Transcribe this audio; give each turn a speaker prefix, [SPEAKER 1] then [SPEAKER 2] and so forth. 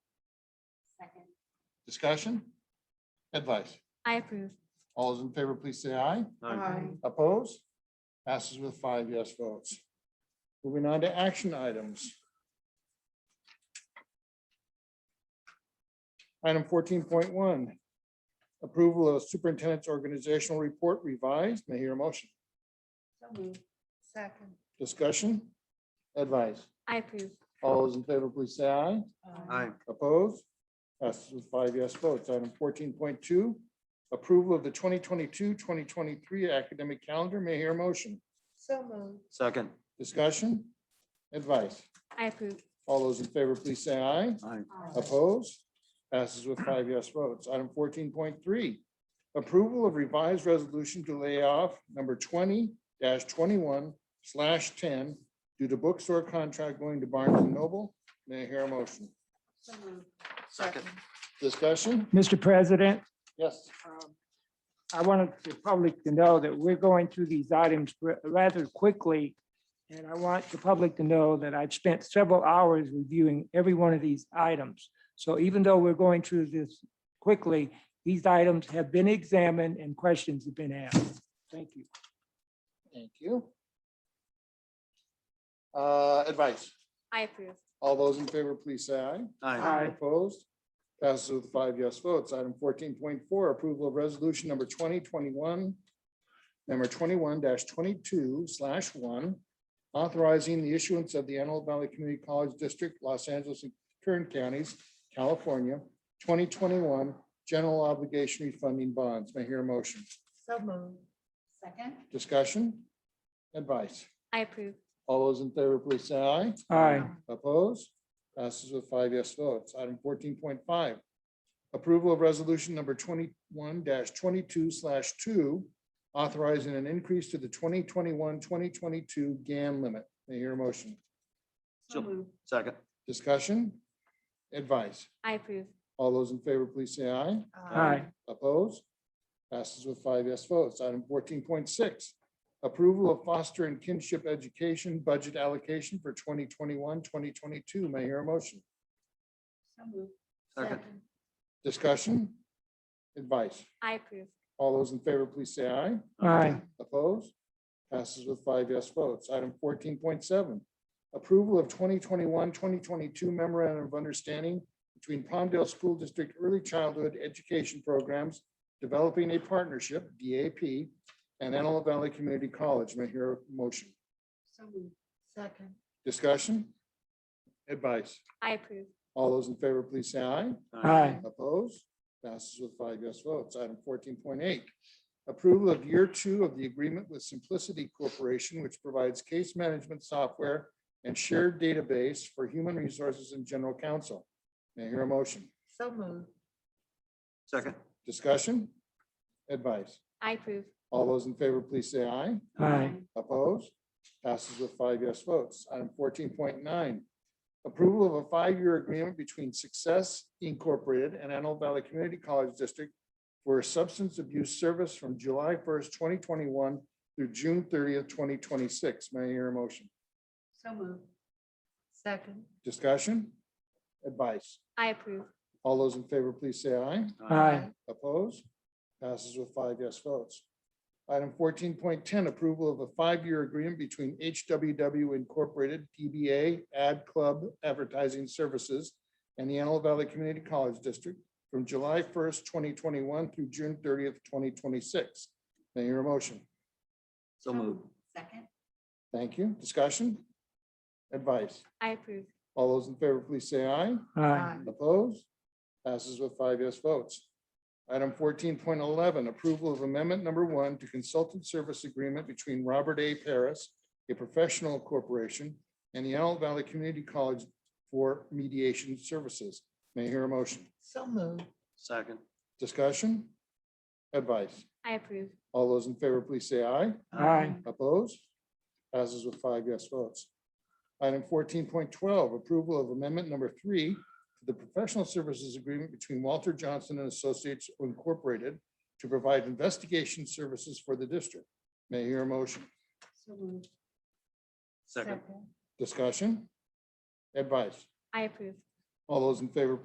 [SPEAKER 1] Second.
[SPEAKER 2] Discussion? Advice?
[SPEAKER 1] I approve.
[SPEAKER 2] All those in favor, please say aye.
[SPEAKER 3] Aye.
[SPEAKER 2] Opposed? Passes with five yes votes. Moving on to action items. Item fourteen point one. Approval of superintendent's organizational report revised. May I hear a motion.
[SPEAKER 3] So moved. Second.
[SPEAKER 2] Discussion? Advice?
[SPEAKER 1] I approve.
[SPEAKER 2] All those in favor, please say aye.
[SPEAKER 4] Aye.
[SPEAKER 2] Opposed? Passes with five yes votes. Item fourteen point two. Approval of the 2022-2023 academic calendar. May I hear a motion.
[SPEAKER 3] So moved.
[SPEAKER 4] Second.
[SPEAKER 2] Discussion? Advice?
[SPEAKER 1] I approve.
[SPEAKER 2] All those in favor, please say aye.
[SPEAKER 4] Aye.
[SPEAKER 2] Opposed? Passes with five yes votes. Item fourteen point three. Approval of revised resolution to lay off number twenty twenty-one slash ten due to bookstore contract going to Barnes and Noble. May I hear a motion?
[SPEAKER 3] So moved.
[SPEAKER 4] Second.
[SPEAKER 2] Discussion?
[SPEAKER 5] Mr. President,
[SPEAKER 2] Yes.
[SPEAKER 5] um, I wanted the public to know that we're going through these items ra- rather quickly. And I want the public to know that I've spent several hours reviewing every one of these items. So even though we're going through this quickly, these items have been examined and questions have been asked. Thank you.
[SPEAKER 2] Thank you. Uh, advice?
[SPEAKER 1] I approve.
[SPEAKER 2] All those in favor, please say aye.
[SPEAKER 4] Aye.
[SPEAKER 2] Opposed? Passes with five yes votes. Item fourteen point four, approval of resolution number twenty twenty-one, number twenty-one twenty-two slash one, authorizing the issuance of the Antelope Valley Community College District, Los Angeles and Kern Counties, California, twenty twenty-one general obligation refunding bonds. May I hear a motion.
[SPEAKER 3] So moved. Second.
[SPEAKER 2] Discussion? Advice?
[SPEAKER 1] I approve.
[SPEAKER 2] All those in favor, please say aye.
[SPEAKER 5] Aye.
[SPEAKER 2] Opposed? Passes with five yes votes. Item fourteen point five. Approval of resolution number twenty-one twenty-two slash two, authorizing an increase to the 2021-2022 GAM limit. May I hear a motion?
[SPEAKER 4] So Second.
[SPEAKER 2] Discussion? Advice?
[SPEAKER 1] I approve.
[SPEAKER 2] All those in favor, please say aye.
[SPEAKER 5] Aye.
[SPEAKER 2] Opposed? Passes with five yes votes. Item fourteen point six, approval of foster and kinship education budget allocation for 2021-2022. May I hear a motion?
[SPEAKER 3] So moved.
[SPEAKER 4] Second.
[SPEAKER 2] Discussion? Advice?
[SPEAKER 1] I approve.
[SPEAKER 2] All those in favor, please say aye.
[SPEAKER 5] Aye.
[SPEAKER 2] Opposed? Passes with five yes votes. Item fourteen point seven, approval of 2021-2022 memorandum of understanding between Palmdale School District Early Childhood Education Programs, Developing a Partnership, DAP, and Antelope Valley Community College. May I hear a motion.
[SPEAKER 3] So moved. Second.
[SPEAKER 2] Discussion? Advice?
[SPEAKER 1] I approve.
[SPEAKER 2] All those in favor, please say aye.
[SPEAKER 5] Aye.
[SPEAKER 2] Opposed? Passes with five yes votes. Item fourteen point eight. Approval of year two of the agreement with Simplicity Corporation, which provides case management software and shared database for human resources and general counsel. May I hear a motion?
[SPEAKER 3] So moved.
[SPEAKER 4] Second.
[SPEAKER 2] Discussion? Advice?
[SPEAKER 1] I approve.
[SPEAKER 2] All those in favor, please say aye.
[SPEAKER 5] Aye.
[SPEAKER 2] Opposed? Passes with five yes votes. Item fourteen point nine. Approval of a five-year agreement between Success Incorporated and Antelope Valley Community College District for substance abuse service from July first, twenty twenty-one through June thirtieth, twenty twenty-six. May I hear a motion?
[SPEAKER 3] So moved. Second.
[SPEAKER 2] Discussion? Advice?
[SPEAKER 1] I approve.
[SPEAKER 2] All those in favor, please say aye.
[SPEAKER 5] Aye.
[SPEAKER 2] Opposed? Passes with five yes votes. Item fourteen point ten, approval of a five-year agreement between HWW Incorporated, DBA Ad Club Advertising Services and the Antelope Valley Community College District from July first, twenty twenty-one through June thirtieth, twenty twenty-six. May I hear a motion?
[SPEAKER 4] So moved.
[SPEAKER 3] Second.
[SPEAKER 2] Thank you. Discussion? Advice?
[SPEAKER 1] I approve.
[SPEAKER 2] All those in favor, please say aye.
[SPEAKER 5] Aye.
[SPEAKER 2] Opposed? Passes with five yes votes. Item fourteen point eleven, approval of amendment number one to consultant service agreement between Robert A. Paris, a professional corporation, and the Antelope Valley Community College for mediation services. May I hear a motion?
[SPEAKER 3] So moved.
[SPEAKER 4] Second.
[SPEAKER 2] Discussion? Advice?
[SPEAKER 1] I approve.
[SPEAKER 2] All those in favor, please say aye.
[SPEAKER 5] Aye.
[SPEAKER 2] Opposed? Passes with five yes votes. Item fourteen point twelve, approval of amendment number three to the professional services agreement between Walter Johnson and Associates Incorporated to provide investigation services for the district. May I hear a motion?
[SPEAKER 3] So moved.
[SPEAKER 4] Second.
[SPEAKER 2] Discussion? Advice?
[SPEAKER 1] I approve.
[SPEAKER 2] All those in favor,